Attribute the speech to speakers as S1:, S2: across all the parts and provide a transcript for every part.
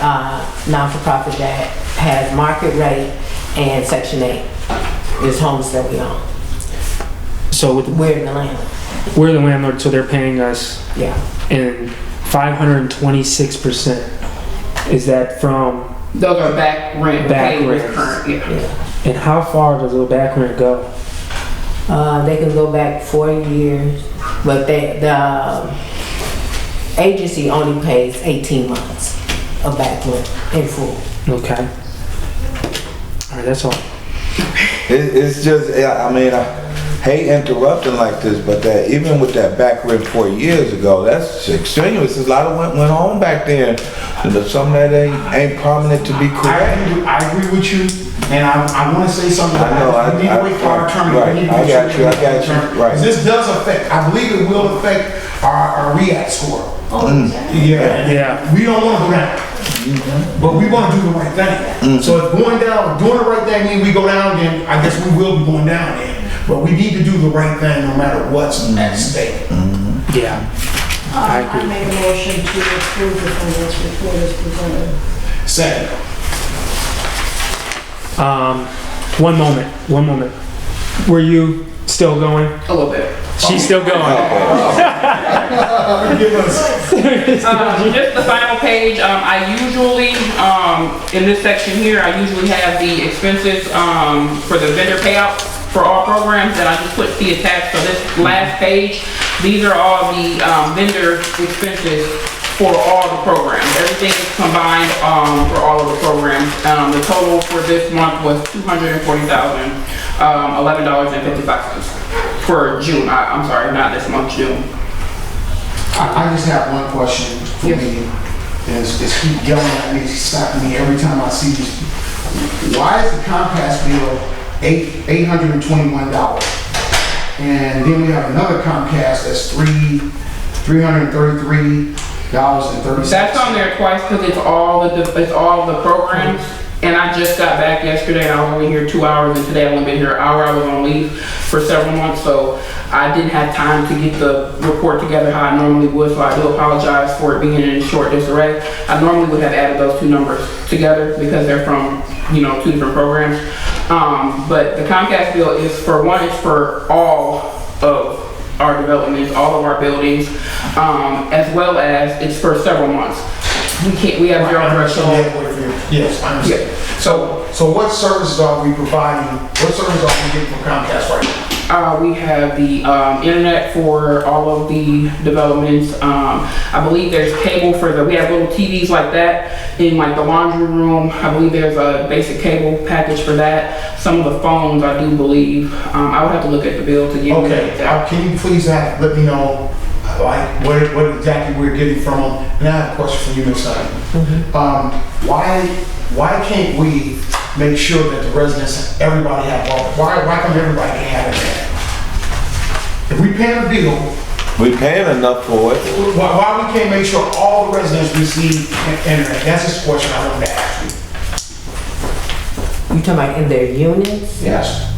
S1: uh, non-for-profit that has market rate and Section 8. There's homes that we own.
S2: So with,
S1: We're in the land,
S2: we're the landlord, so they're paying us
S1: yeah.
S2: in 526%. Is that from,
S3: Those are back rent
S2: Back
S3: paid with
S2: rents.
S3: current, yeah.
S2: and how far does the back rent go?
S1: Uh, They can go back four years, but they, the um, agency only pays 18 months of back rent in full.
S2: Okay. All right, that's all.
S4: It, it's just, yeah, I mean, I hate interrupting like this, but that even with that back rent four years ago, that's extraneous. A lot of went, went on back then. And there's some that ain't, ain't prominent to be
S5: I
S4: correct.
S5: agree, I agree with you, and I, I wanna say something.
S4: I know, I-
S5: We need to
S4: I-
S5: wait for our attorney.
S4: right,
S5: We need to
S4: I
S5: make
S4: got
S5: sure
S4: you, I
S5: we get
S4: got you,
S5: our attorney.
S4: right.
S5: This does affect, I believe it will affect our, our REACT score. Mm. Yeah.
S2: Yeah.
S5: We don't wanna go down, but we wanna do the right
S4: Mm.
S5: thing. So if going down, doing the right thing, mean we go down, then I guess we will be going down then. But we need to do the right thing no matter what's at
S4: Mm.
S5: stake.
S2: Yeah. I
S6: I
S2: agree.
S6: make a motion to approve the finance report as presented.
S5: Second.
S2: Um, one moment, one moment. Were you still going?
S3: A little bit.
S2: She's still going.
S5: Give us-
S3: Um, just the final page, um, I usually, um, in this section here, I usually have the expenses, um, for the vendor payouts for all programs that I just put the attached, so this last page, these are all the, um, vendor expenses for all the programs. Everything is combined, um, for all of the programs. Um, the total for this month was two hundred and forty thousand, um, eleven dollars and fifty-five cents for June, I, I'm sorry, not this month, June.
S5: I, I just have one question for
S3: Yes.
S5: me. Is, is keep yelling at me, stopping me every time I see this. Why is the Comcast bill eight, eight hundred and twenty-one dollars? And then we have another Comcast that's three, three hundred and thirty-three dollars and thirty cents.
S3: That's on there twice because it's all the, it's all the programs. And I just got back yesterday and I was only here two hours and today I've only been here an hour. I was on leave for several months, so I didn't have time to get the report together how I normally would, so I do apologize for it being in short disarray. I normally would have added those two numbers together because they're from, you know, two different programs. Um, but the Comcast bill is for, one, it's for all of our developments, all of our buildings, um, as well as it's for several months. We can't, we have zero threshold.
S5: Yes, I understand. So, so what services are we providing, what services are we getting from Comcast right now?
S3: Uh, we have the, um, internet for all of the developments. Um, I believe there's cable for the, we have little TVs like that in like the laundry room. I believe there's a basic cable package for that. Some of the phones, I do believe. Um, I would have to look at the bill to get. you
S5: Okay,
S3: that.
S5: uh, can you please have, let me know, uh, like, what, what exactly we're getting from them? And I have a question for you, Ms. Simon. Um, why, why can't we make sure that the residents, everybody have, all- why, why come everybody can have it? If we pay a bill,
S4: We paying enough for it.
S5: why, why we can't make sure all the residents receive internet? That's just a question I wanted to ask you.
S1: You talking about in their units?
S5: Yes.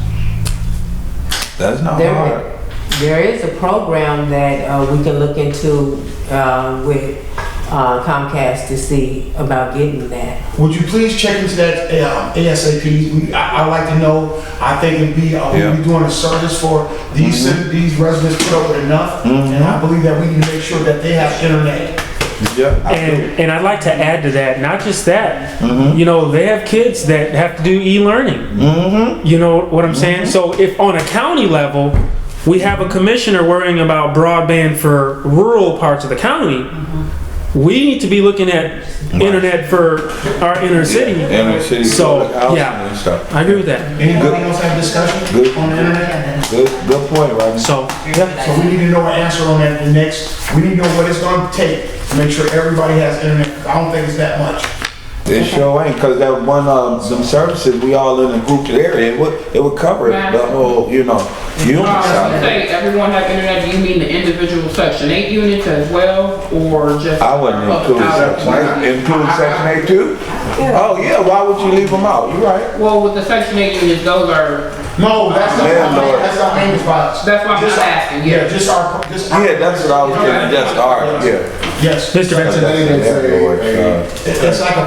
S4: That's not hard.
S1: There, there is a program that uh, we can look into uh, with uh, Comcast to see about getting that.
S5: Would you please check into that um, ASAP? We- I- I'd like to know, I think it'd be, uh,
S4: Yeah. Mm-hmm.
S5: we'd be doing a service for these, cit- these residents put up with enough. And I believe that we need to make sure that they have internet.
S4: Yeah, I do.
S2: And, and I'd like to add to that, not just that, you know, they have kids that have to do e-learning.
S4: Mm-hmm.
S2: You know what I'm saying? So if on a county level, we have a commissioner worrying about broadband for rural parts of the county, we need to be looking at internet for our inner city.
S4: Inner city.
S2: So,
S4: public housing
S2: yeah.
S4: and stuff.
S2: I agree with that.
S5: Anybody else have discussion
S4: Good.
S5: on the internet?
S4: Good, good point, Rodney.
S2: So,
S5: So we need to know an answer on that in the next, we need to know what it's gonna take to make sure everybody has internet. I don't think it's that much.
S4: It sure ain't, cause that one, um, some services, we all in a grouped area, it would, it would cover it, the whole, you know, unit
S3: Uh, you
S4: side.
S3: say everyone have internet, do you mean the individual section eight units as well, or just?
S4: I wouldn't include section eight, include section eight too? Oh, yeah, why would you leave them out? You right.
S3: Well, with the section eight units, those are,
S5: No, that's not,
S4: Landlord.
S5: that's not Amos Brothers.
S3: that's what I'm
S5: Just-
S3: just asking,
S5: Yeah,
S3: yeah.
S5: just our, just. our-
S4: Yeah, that's what I was getting, that's all right, yeah.
S5: Yes.
S2: Mr. Benson.
S4: That's- that's the way it's, uh,
S5: It's like a